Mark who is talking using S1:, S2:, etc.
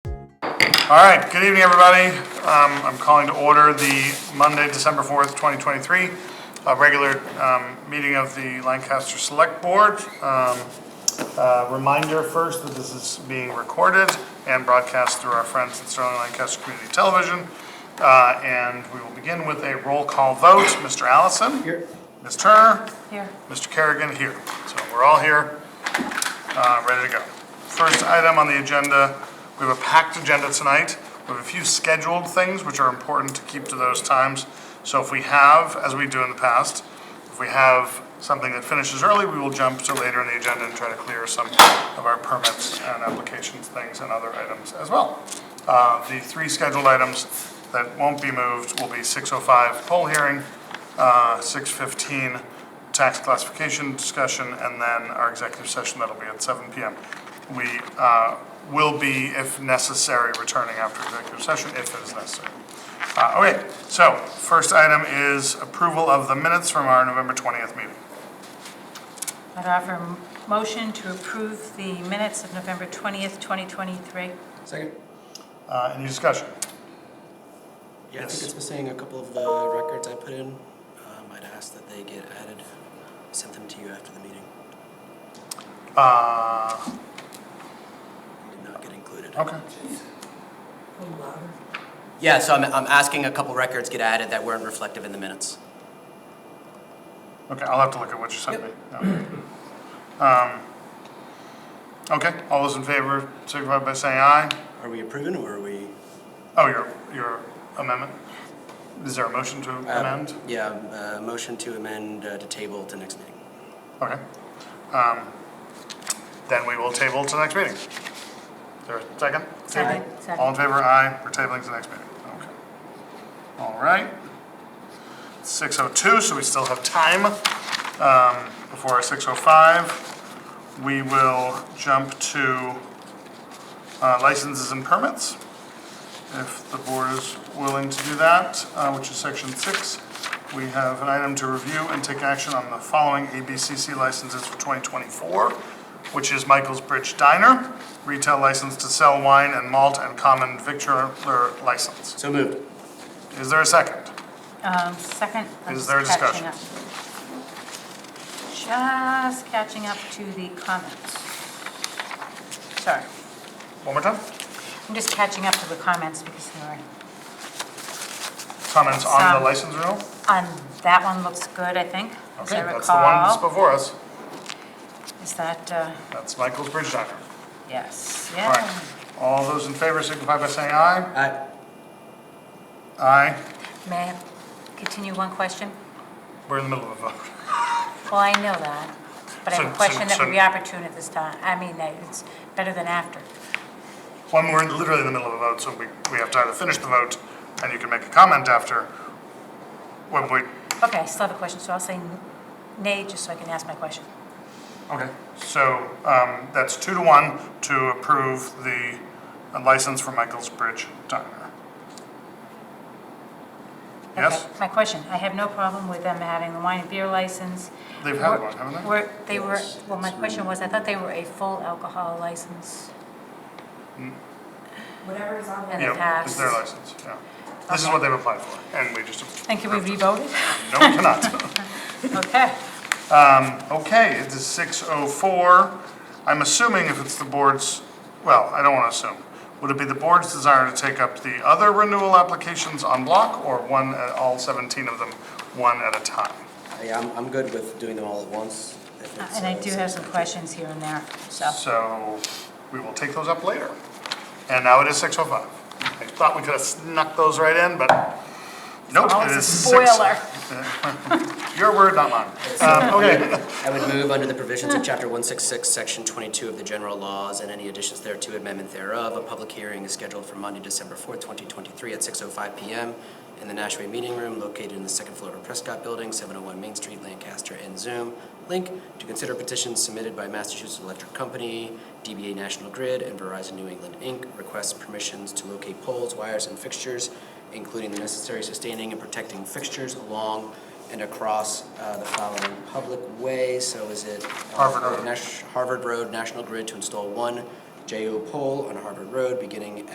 S1: All right, good evening, everybody. Um, I'm calling to order the Monday, December 4th, 2023, uh, regular um, meeting of the Lancaster Select Board. Um, uh, Reminder first that this is being recorded and broadcast through our friends at Sterling Lancaster Community Television. Uh, And we will begin with a roll call vote. Mr. Allison? Here. Ms. Turner?
S2: Here.
S1: Mr. Kerrigan here. So we're all here, uh, ready to go. First item on the agenda, we have a packed agenda tonight. We have a few scheduled things which are important to keep to those times. So if we have, as we do in the past, if we have something that finishes early, we will jump to later in the agenda and try to clear some of our permits and applications things and other items as well. Uh, The three scheduled items that won't be moved will be 6:05 poll hearing, uh, 6:15 tax classification discussion, and then our executive session, that'll be at 7 PM. We uh, will be, if necessary, returning after executive session, if it is necessary. Uh, Okay, so first item is approval of the minutes from our November 20th meeting.
S2: I'd offer a m- motion to approve the minutes of November 20th, 2023.
S3: Second.
S1: Uh, Any discussion?
S3: Yeah, I
S1: Yes.
S3: think it's missing a couple of the records I put in. Um, I'd ask that they get added, sent them to you after the meeting.
S1: Uh,
S3: Did not get included.
S1: Okay,
S3: Yeah, so I'm, I'm asking a couple records get added that weren't reflective in the minutes.
S1: okay, I'll have to look at what you sent me. Um, Okay, all those in favor signify by saying aye.
S3: Are we approving or are we?
S1: Oh, your, your amendment? Is there a motion to
S3: um,
S1: amend?
S3: Yeah, um, uh, motion to amend uh, to table to next meeting.
S1: Okay. Um, Then we will table to next meeting. Is there a second?
S2: Second.
S1: Table. All in favor, aye, we're tabling to next meeting. Okay. All right. 6:02, so we still have time um, before our 6:05. We will jump to uh, licenses and permits, if the board is willing to do that, uh, which is section six. We have an item to review and take action on the following ABCC licenses for 2024, which is Michael's Bridge Diner, retail license to sell wine and malt and common victular license.
S3: So moved.
S1: Is there a second?
S2: Um, Second. I'm
S1: Is there a
S2: just
S1: discussion?
S2: catching up. Just catching up to the comments. Sorry,
S1: One more time?
S2: I'm just catching up to the comments because they were,
S1: Comments on
S2: Some.
S1: the license renewal?
S2: on, that one looks good, I think, as
S1: Okay,
S2: I
S1: that's the one that's
S2: recall.
S1: before us.
S2: Is that, uh,
S1: That's Michael's Bridge Diner.
S2: yes,
S1: All
S2: yeah.
S1: right. All those in favor signify by saying aye.
S3: Aye.
S1: Aye.
S2: May I continue one question?
S1: We're in the middle of a vote.
S2: Well, I know that, but I
S1: So-
S2: have
S1: so-
S2: a question that
S1: so-
S2: would be opportune at this time. I mean, that it's better than after.
S1: One, we're literally in the middle of a vote, so we, we have time to finish the vote, and you can make a comment after. When we,
S2: Okay, I still have a question, so I'll say nay, just so I can ask my question.
S1: okay, so, um, that's two to one to approve the license for Michael's Bridge Diner.
S2: Okay,
S1: Yes,
S2: My question, I have no problem with them having the wine and beer license.
S1: they've had one, haven't
S2: Were, they were,
S3: Yes,
S2: well, my
S3: it's
S2: question was, I thought they were a full alcohol license. Whatever is on. In
S1: they?
S2: the
S1: Mm. Yeah, it's
S2: past.
S1: their license, yeah. This is what they've applied for, and we just,
S2: And can we revote it?
S1: no, we cannot.
S2: Okay.
S1: Okay, it is six oh four. I'm assuming if it's the board's, well, I don't want to assume. Would it be the board's desire to take up the other renewal applications on block or one, uh, all seventeen of them, one at a time?
S3: Yeah, I'm, I'm good with doing them all at once. if it's,
S2: And I
S3: uh,
S2: do have some questions here and there, so.
S1: So we will take those up later. And now it is six oh five. I thought we could have snuck those right in, but nope, it
S2: Always Oh, a
S1: is six.
S2: spoiler.
S1: Your word, not mine. Um, okay.
S3: I would move under the provisions of Chapter 166, Section 22 of the General Laws and any additions thereto, amendment thereof. A public hearing is scheduled for Monday, December 4th, 2023 at 6:05 PM in the Nashua Meeting Room located in the second floor of Prescott Building, 701 Main Street, Lancaster, and Zoom. Link to consider petitions submitted by Massachusetts Electric Company, DBA National Grid, and Verizon New England, Inc. Requests permissions to locate poles, wires, and fixtures, including the necessary sustaining and protecting fixtures along and across uh, the following public way, so is it? uh,
S1: Harvard Road.
S3: Nash- Harvard Road, National Grid to install one JO pole on Harvard Road beginning